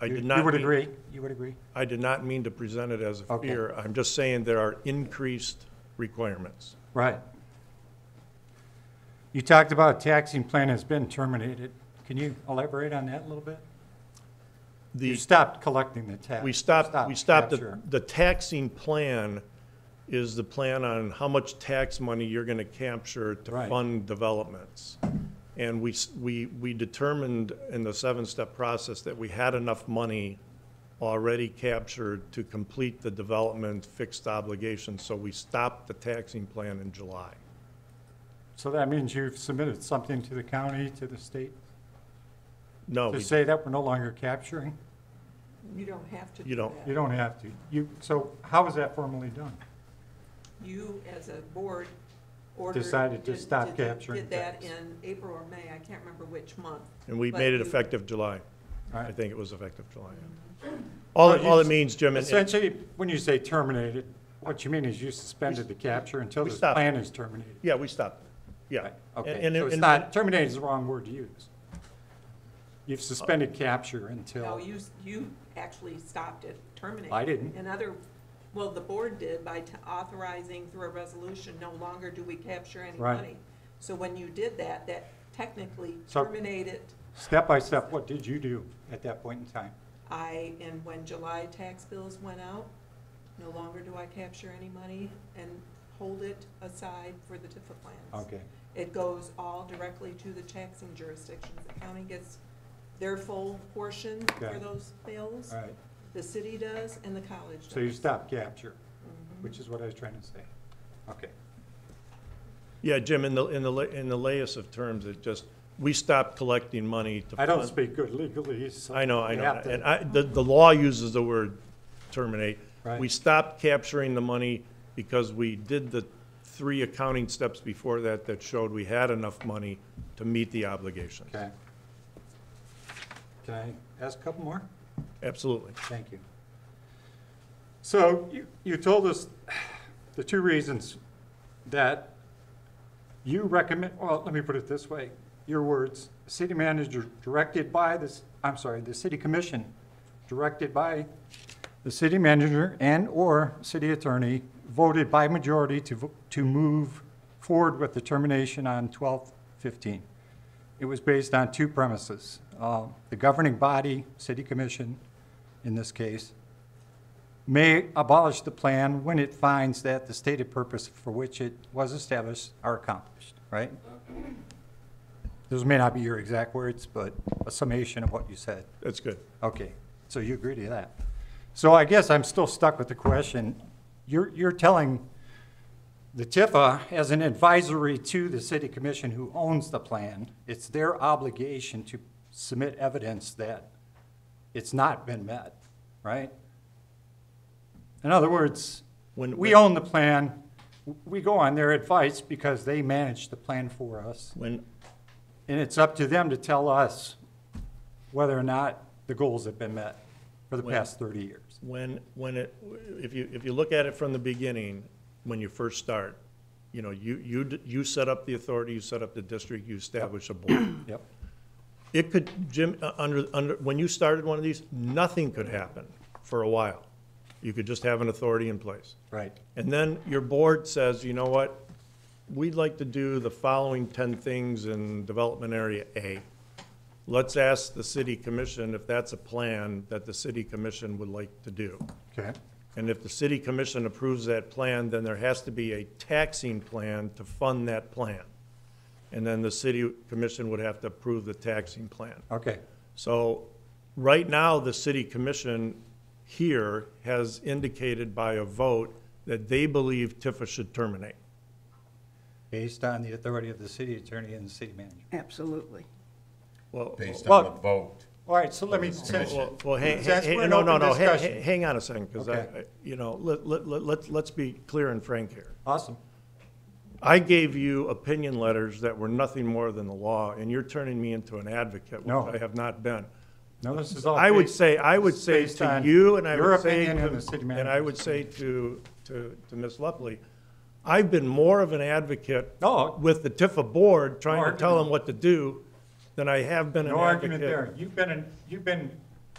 I You- did not. You would mean- agree, you would agree? I did not mean to present it as a Okay. fear. I'm just saying there are increased requirements. Right. You talked about a taxing plan has been terminated. Can you elaborate on that a little bit? You The, stopped collecting the tax. we stopped, we stopped, the- capture. the taxing plan is the plan on how much tax money you're going to capture to Right. fund developments. And we, s- we, we determined in the seven-step process that we had enough money already captured to complete the development fixed obligation, so we stopped the taxing plan in July. So that means you've submitted something to the county, to the state, No, to Oh, we- say that we're no longer capturing? You don't have to do that. You don't. You don't have to. You, so how was that formally done? You, as a board, ordered. Decided to did- stop did- did capturing that tax. in April or May, I can't remember which month. and we But made it you- effective July. All I right. think it was effective July. yeah. All, Well, it- you all it s- means, Jim, and- and Essentially, when you say terminated, what you mean is you suspended the capture until we this stopped. plan is terminated. yeah, we stopped. Yeah. Right, And- Okay, and- so it's and- not, terminated is the wrong word to use. You've suspended capture No, until, you, s- you actually stopped it, terminated. I didn't. And other, well, the board did by t- authorizing through a resolution, no longer do we capture any Right. money. So when you did that, that technically So- terminated, step by step, what did you do at that point in time? I, and when July tax bills went out, no longer do I capture any money and hold it aside for the TIFA plans. Okay, It goes all directly to the taxing jurisdictions. The county gets their full portion Got for it. those bills. all right. The city does and the college does. So you stopped capture, Mm-hmm. which is what I was trying to say. Okay, Yeah, Jim, in the, in the, la- in the layest of terms, it just, we stopped collecting money to. I don't fund- speak good legalese. so I know, I you know. have to- And I, the, the law uses the word terminate. Right. We stopped capturing the money because we did the three accounting steps before that that showed we had enough money to meet the obligations. Okay. Can I ask a couple more? Absolutely. Thank you. So you, you told us the two reasons that you recommend, well, let me put it this way, your words, city manager directed by this, I'm sorry, the city commission directed by the city manager and/or city attorney voted by majority to, vo- to move forward with the termination on 12/15. It was based on two premises. Uh, The governing body, city commission in this case, may abolish the plan when it finds that the stated purpose for which it was established are accomplished, right? Those may not be your exact words, but a summation of what you said. That's good. Okay, so you agree to that. So I guess I'm still stuck with the question. You're, you're telling the Tifa as an advisory to the city commission who owns the plan, it's their obligation to submit evidence that it's not been met, right? In other words, When- we own the plan, we go on their advice because they manage the plan for us. When, And it's up to them to tell us whether or not the goals have been met for the When- past 30 years. When, when it, if you, if you look at it from the beginning, when you first start, you know, you, you, d- you set up the authority, you set up the district, you establish a board. Yep. It could, Jim, uh, under, under, when you started one of these, nothing could happen for a while. You could just have an authority in place. Right. And then your board says, you know what, we'd like to do the following ten things in development area A. Let's ask the city commission if that's a plan that the city commission would like to do. Okay. And if the city commission approves that plan, then there has to be a taxing plan to fund that plan. And then the city commission would have to approve the taxing plan. Okay. So, right now, the city commission here has indicated by a vote that they believe Tifa should terminate. Based on the authority of the city attorney and the city manager. Absolutely. Well, based Well- on the vote. All right, so let me, well, well, hang, That's- hang- we're in no, no, open no, hang, discussion. hang on a second, because I, Okay. you know, let, let, let- let's, let's be clear and frank here. awesome. I gave you opinion letters that were nothing more than the law, and you're turning me into an advocate, No. which I have not been. No, this is all. I would based- say, I would this is say based to on you, and I your would say, opinion and the to- city and I manager's would say to, to, to Ms. Lepley, I've been more of an advocate No. with the Tifa board, trying to tell argument. them what to do, than I have been an No argument advocate. there. You've been, an- you've been